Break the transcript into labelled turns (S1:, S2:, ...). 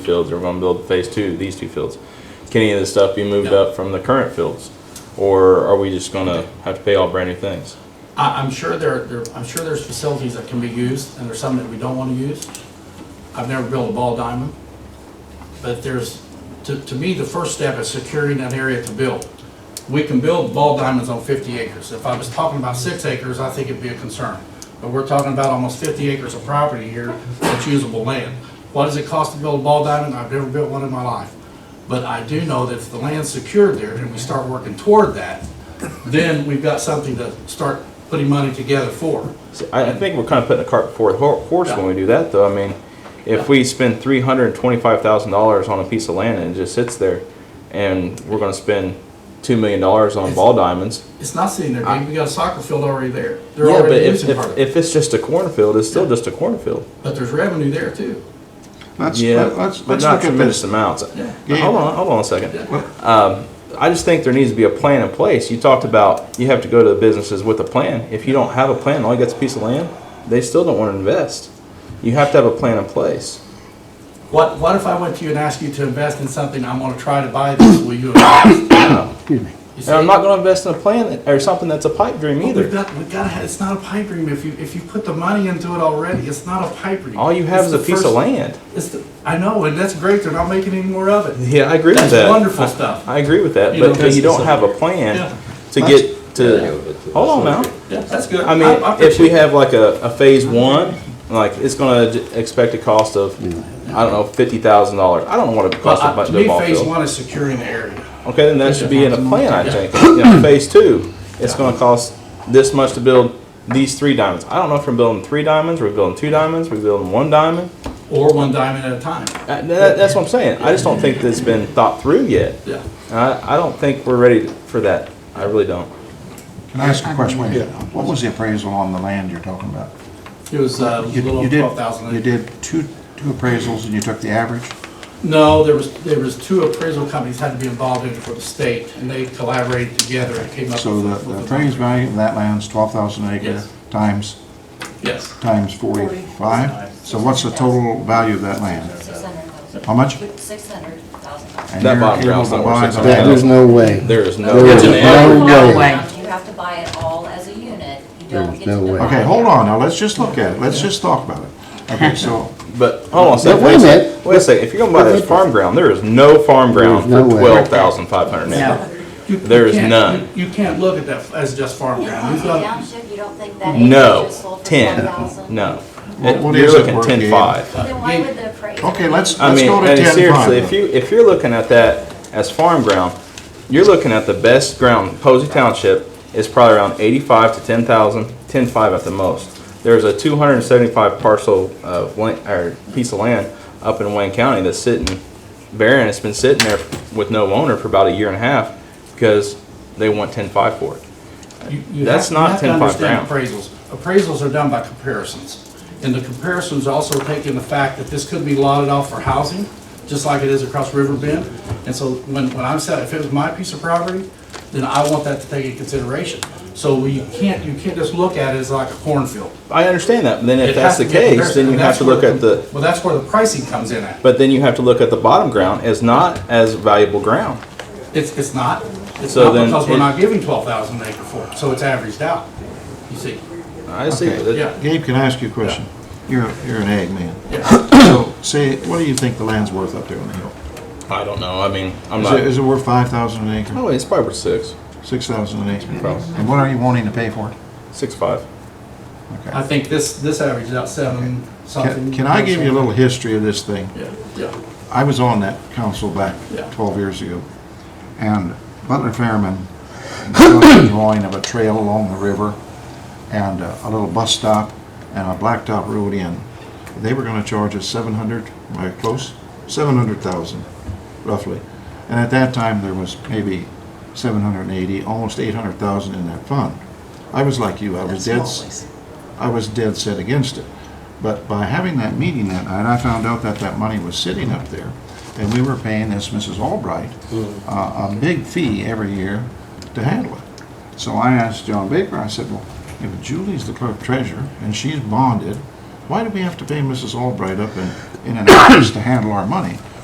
S1: fields, or we're gonna build phase two, these two fields. Can any of this stuff be moved up from the current fields? Or are we just gonna have to pay all brand new things?
S2: I, I'm sure there, there, I'm sure there's facilities that can be used, and there's some that we don't wanna use. I've never built a ball diamond. But there's, to, to me, the first step is securing that area to build. We can build ball diamonds on fifty acres. If I was talking about six acres, I think it'd be a concern. But we're talking about almost fifty acres of property here that's usable land. What does it cost to build a ball diamond? I've never built one in my life. But I do know that if the land's secured there and we start working toward that, then we've got something to start putting money together for.
S1: See, I, I think we're kinda putting the cart before the hor- horse when we do that, though, I mean, if we spend three hundred and twenty-five thousand dollars on a piece of land and it just sits there, and we're gonna spend two million dollars on ball diamonds.
S2: It's not sitting there, Dave, we got a soccer field already there. They're
S1: Yeah, but
S2: already
S1: if,
S2: using part
S1: if,
S2: of it,
S1: if it's just a cornfield, it's still just a cornfield.
S2: but there's revenue there too.
S3: Let's,
S1: Yeah,
S3: let's,
S1: but
S3: let's
S1: not
S3: look at
S1: tremendous
S3: this.
S1: amounts.
S2: Yeah.
S1: Hold on, hold on a second. Um,
S2: Yeah.
S1: I just think there needs to be a plan in place. You talked about you have to go to the businesses with a plan. If you don't have a plan, all you got's a piece of land, they still don't want to invest. You have to have a plan in place.
S2: What, what if I went to you and asked you to invest in something, I'm gonna try to buy this, will you invest? You see,
S1: And I'm not going to invest in a plan that, or something that's a pipe dream
S2: We've
S1: either.
S2: got, we've gotta have, it's not a pipe dream, if you, if you put the money into it already, it's not a pipe dream.
S1: All you have is
S2: It's the
S1: a piece of
S2: first-
S1: land.
S2: It's the, I know, and that's great, they're not making any more of it.
S1: Yeah, I agree
S2: That's
S1: with that.
S2: wonderful
S1: I-
S2: stuff.
S1: I agree with that,
S2: You
S1: but
S2: know,
S1: but you don't
S2: that's-
S1: have a plan
S2: Yeah.
S1: to
S3: That's-
S1: get to. Hold on now.
S2: That's good.
S1: I mean, if we have like a, a phase one, like it's going to expect a cost of, I don't know, fifty thousand dollars. I don't know what it costs to
S2: Well,
S1: buy
S2: I- To uh, me,
S1: the ball
S2: phase
S1: field.
S2: one is securing the area.
S1: Okay, then that should be in a plan, I think. You know, phase two, it's gonna cost this much to build these three diamonds. I don't know if we're building three diamonds, we're building two diamonds, we're building one diamond.
S2: Or one diamond at a time.
S1: Uh, that- that's what I'm saying. I just don't think that's been thought through yet.
S2: Yeah.
S1: And I, I don't think we're ready for that. I really don't.
S3: Can I ask a question? Wait, a minute. what was the appraisal on the land you're talking about?
S2: It was uh, a
S3: You-
S2: little
S3: you did-
S2: twelve thousand.
S3: You did two, two appraisals and you took the average?
S2: No, there was, there was two appraisal companies had to be involved in it for the state, and they collaborated together and came up with.
S3: So the
S2: with
S3: the appraised
S2: number.
S3: value of that land's twelve thousand acre
S2: Yes.
S3: times,
S2: Yes,
S3: times forty-five? So what's the total value of that land?
S4: Six hundred thousand.
S3: How much?
S4: Six hundred thousand
S1: That
S3: And
S4: dollars.
S3: you're
S1: bottom
S3: able
S1: ground's
S3: to
S1: not
S3: buy
S1: worth
S3: the
S1: six hundred.
S3: land-
S5: There's no way.
S1: There is no.
S5: There is
S1: It's an
S5: no
S1: average.
S5: way.
S4: You have to buy it all as a unit. You don't
S5: There's
S4: get to
S5: no way.
S4: divide.
S3: Okay, hold on, now let's just look at it, let's just talk about it. Okay, so,
S1: But hold on a second.
S5: But wait a
S1: sec.
S5: minute.
S1: Wait a second. If you're gonna buy this farm ground, there is no farm ground
S5: There's
S1: for
S5: no way.
S1: twelve thousand five hundred acres.
S2: You- you
S1: There is
S2: can't-
S1: none.
S2: You you can't look at that as just farm ground. We've
S4: County
S2: got,
S4: Township, you don't think that acre
S1: No,
S4: just sold for
S1: ten.
S4: ten thousand?
S1: No.
S3: What- what
S1: You're
S3: is it
S1: looking
S3: worth,
S1: ten
S3: Gabe?
S1: five.
S4: Then why would the appraiser?
S3: okay, let's,
S1: I
S3: let's
S1: mean,
S3: go to
S1: and
S3: ten
S1: seriously, if you if you're looking at that as farm ground, you're looking at the best ground. Posey Township is probably around 85 to 10,000, 10.5 at the most. There's a 275 parcel of land, or piece of land up in Wayne County that's sitting barren. It's been sitting there with no owner for about a year and a half because they want 10.5 for it.
S2: you you have
S1: That's
S2: you
S1: not
S2: have to
S1: 10 by
S2: understand
S1: ground.
S2: appraisals. Appraisals are done by comparisons. And the comparisons also take in the fact that this could be lotted off for housing, just like it is across River Bend. And so when, when I'm set, if it was my piece of property, then I want that to take into consideration. So we can't, you can't just look at it as like a cornfield.
S1: I understand that. but Then if
S2: It
S1: that's
S2: has
S1: the
S2: to be a
S1: case,
S2: comparison,
S1: then you
S2: and
S1: have
S2: that's
S1: to look
S2: where
S1: at the
S2: Well, that's where the pricing comes in at.
S1: but then you have to look at the bottom ground as not as valuable ground.
S2: It's, it's not, it's
S1: So
S2: not
S1: then
S2: because
S1: it-
S2: we're not giving twelve thousand an acre for it, so it's averaged out, you see,
S1: I see.
S3: Okay.
S1: that-
S2: yeah.
S3: Gabe, can I ask you a question? You're, you're an ag man.
S2: yeah.
S3: So, say, what do you think the land's worth up there on the hill?
S1: I don't know. I mean, I'm
S3: Is
S1: not.
S3: it, is it worth five thousand an acre,
S1: oh, it's probably worth six,
S3: six thousand an acre?
S1: Probably.
S3: And what are you wanting to pay for it?
S1: six five.
S2: I
S3: Okay.
S2: think this, this averages out seven something.
S3: Can- Can I give you a little history of this thing?
S2: Yeah, yeah,
S3: I was on that council back
S2: Yeah.
S3: twelve years ago. And Butler Fairman, showed a drawing of a trail along the river and uh, a little bus stop and a blacktop road in. They were gonna charge us seven hundred, am I close? Seven hundred thousand, roughly. And at that time, there was maybe seven hundred and eighty, almost eight hundred thousand in that fund. I was like you, I was dead, s- I was dead set against it. But by having that meeting that night, I found out that that money was sitting up there, and we were paying this Mrs. Albright uh, a big fee every year to handle it. So I asked John Baker, I said, well, if Julie's the clerk treasurer and she's bonded, Why do we have to pay Mrs. Albright up in, in an office to handle our money?